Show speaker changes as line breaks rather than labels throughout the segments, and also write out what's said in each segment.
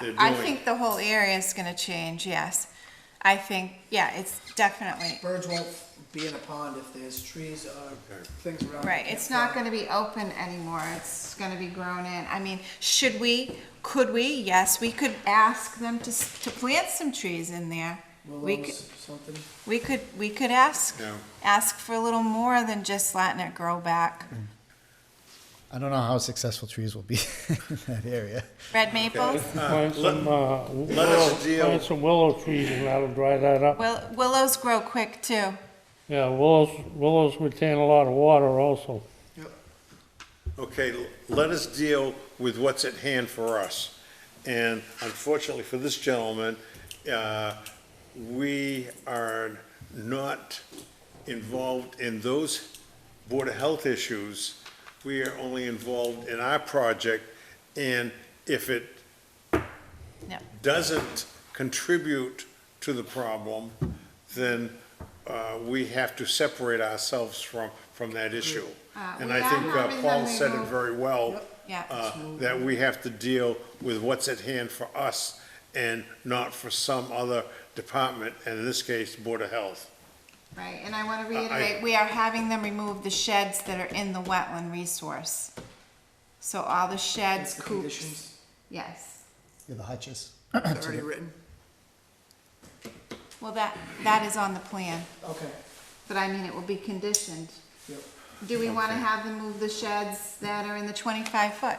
they're
I
doing.
think the whole area is gonna change, yes. I think, yeah, it's definitely,
Birds won't be in a pond if there's trees or things around. that
right,
can't
it's not
fly.
gonna be open anymore, it's gonna be grown in. I mean, should we, could we? Yes, we could ask them to, s- to plant some trees in there. We could,
Willows, something.
we could, we could ask,
No.
ask for a little more than just letting it grow back.
I don't know how successful trees will be in that area.
Red maples,
Plant
let-
some, uh,
let us
willow,
deal-
plant some willow trees and that'll dry that up.
will, willows grow quick too.
Yeah, willows, willows retain a lot of water also.
Okay, l- let us deal with what's at hand for us. And unfortunately for this gentleman, uh, we are not involved in those Board of Health issues. We are only involved in our project, and if it
No.
doesn't contribute to the problem, then uh, we have to separate ourselves from, from that issue.
Uh,
And
we
I
are
think uh,
having
Paul
them
said it
remove-
very well,
Yeah.
uh, that we have to deal with what's at hand for us and not for some other department, and in this case, Board of Health.
Right, and I want to reiterate, we are having them remove the sheds that are in the wetland resource. So all the
That's
sheds,
the
coops,
conditions.
yes.
Yeah, the hutches.
It's already written.
Well, that, that is on the plan,
Okay,
but I mean, it will be conditioned.
yep.
Do we want to have them move the sheds that are in the twenty-five foot?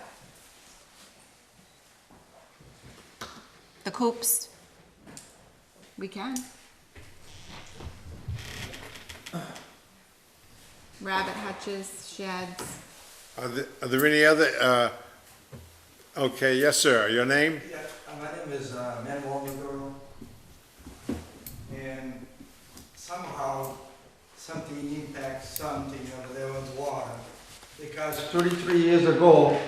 The coops? We can. Rabbit hutches, sheds.
Are there, are there any other, uh, okay, yes, sir, your name?
Yeah, uh, my name is uh, Manuel Maduro. And somehow, something impacts something over there with water. Because thirty-three years ago,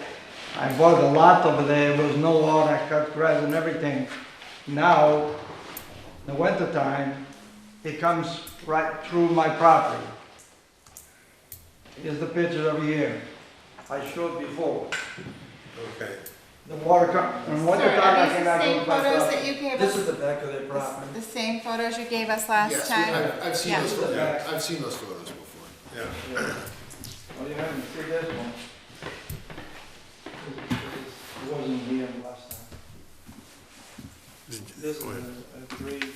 I bought a lot over there, there was no water, I cut grass and everything. Now, in the wintertime, it comes right through my property. Here's the picture over here. I showed before.
Okay.
The water com, and what the
Sir,
time
are
I
these
came
the same
back with my
photos
property.
that you gave
This
us?
is the back of their
It's
property.
The same photos you gave us last
Yes, we-
time?
I've, I've seen
Yeah.
those, photos.
Yeah.
I've seen those photos before.
Yeah.
Oh, you haven't seen this one? It wasn't here last time. This is a a three,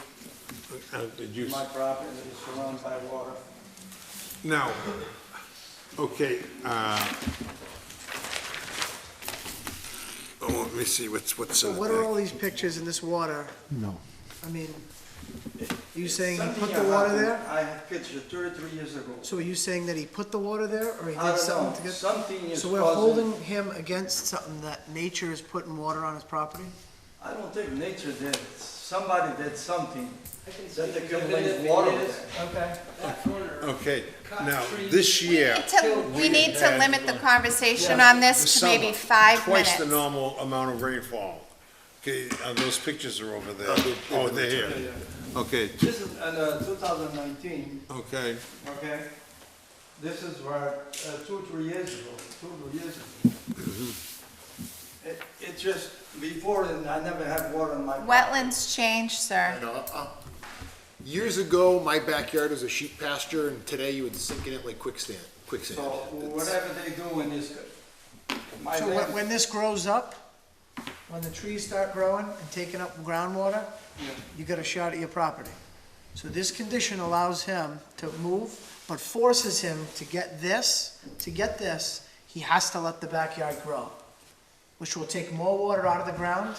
Uh, Did you?
my property that is surrounded by water.
Now, okay, uh, oh, let me see, what's, what's
So
in the
what are all
thing?
these pictures in this water?
No.
I mean, you saying he
Something
put the water
happened.
there?
I had picture thirty-three years ago.
So are you saying that he put the water there or he did
I don't know,
something to
something
get?
is
So we're
causing,
holding him against something that nature is putting water on his property?
I don't think nature did, it. somebody did something. That they can raise water there.
Okay, now, this year,
To- We need to limit the conversation on this to
summer,
maybe five
twice the
minutes.
normal amount of rainfall. Okay, uh, those pictures are over there. Oh, they're here. Okay,
This is, uh, two thousand nineteen,
okay,
okay? This is where, uh, two, three years ago, two, three years ago. It, it just, before, then, I never had water in my.
Wetlands change, sir.
You know, uh,
Years ago, my backyard was a sheep pasture, and today you would sink in it like quicksand.
So whatever they do in this, my
So when,
land,
when this grows up, when the trees start growing and taking up groundwater, you got a shot at your property. So this condition allows him to move, but forces him to get this, to get this, he has to let the backyard grow, which will take more water out of the ground,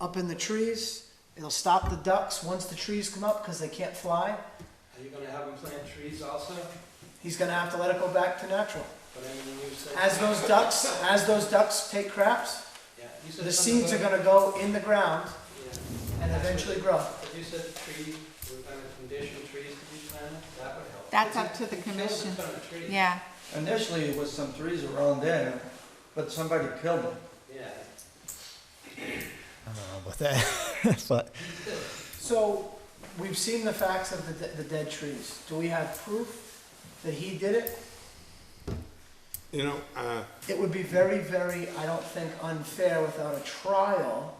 up in the trees, it'll stop the ducks once the trees come up, cause they can't fly,
Are you gonna have them plant trees also?
he's gonna have to let it go back to natural.
But I mean, you said.
As those ducks, as those ducks take craps,
Yeah, you said
The
something
seeds are
about-
gonna go in the ground
Yeah.
and eventually grow.
But you said trees, we're gonna condition trees to be planted, that would help.
That's up to the
Kill the
commission.
ton of trees.
Yeah,
initially it was some trees around there, but somebody killed them.
Yeah.
I don't know about that, but
So, we've seen the facts of the, de- the dead trees. Do we have proof that he did it?
you know, uh,
It would be very, very, I don't think, unfair without a trial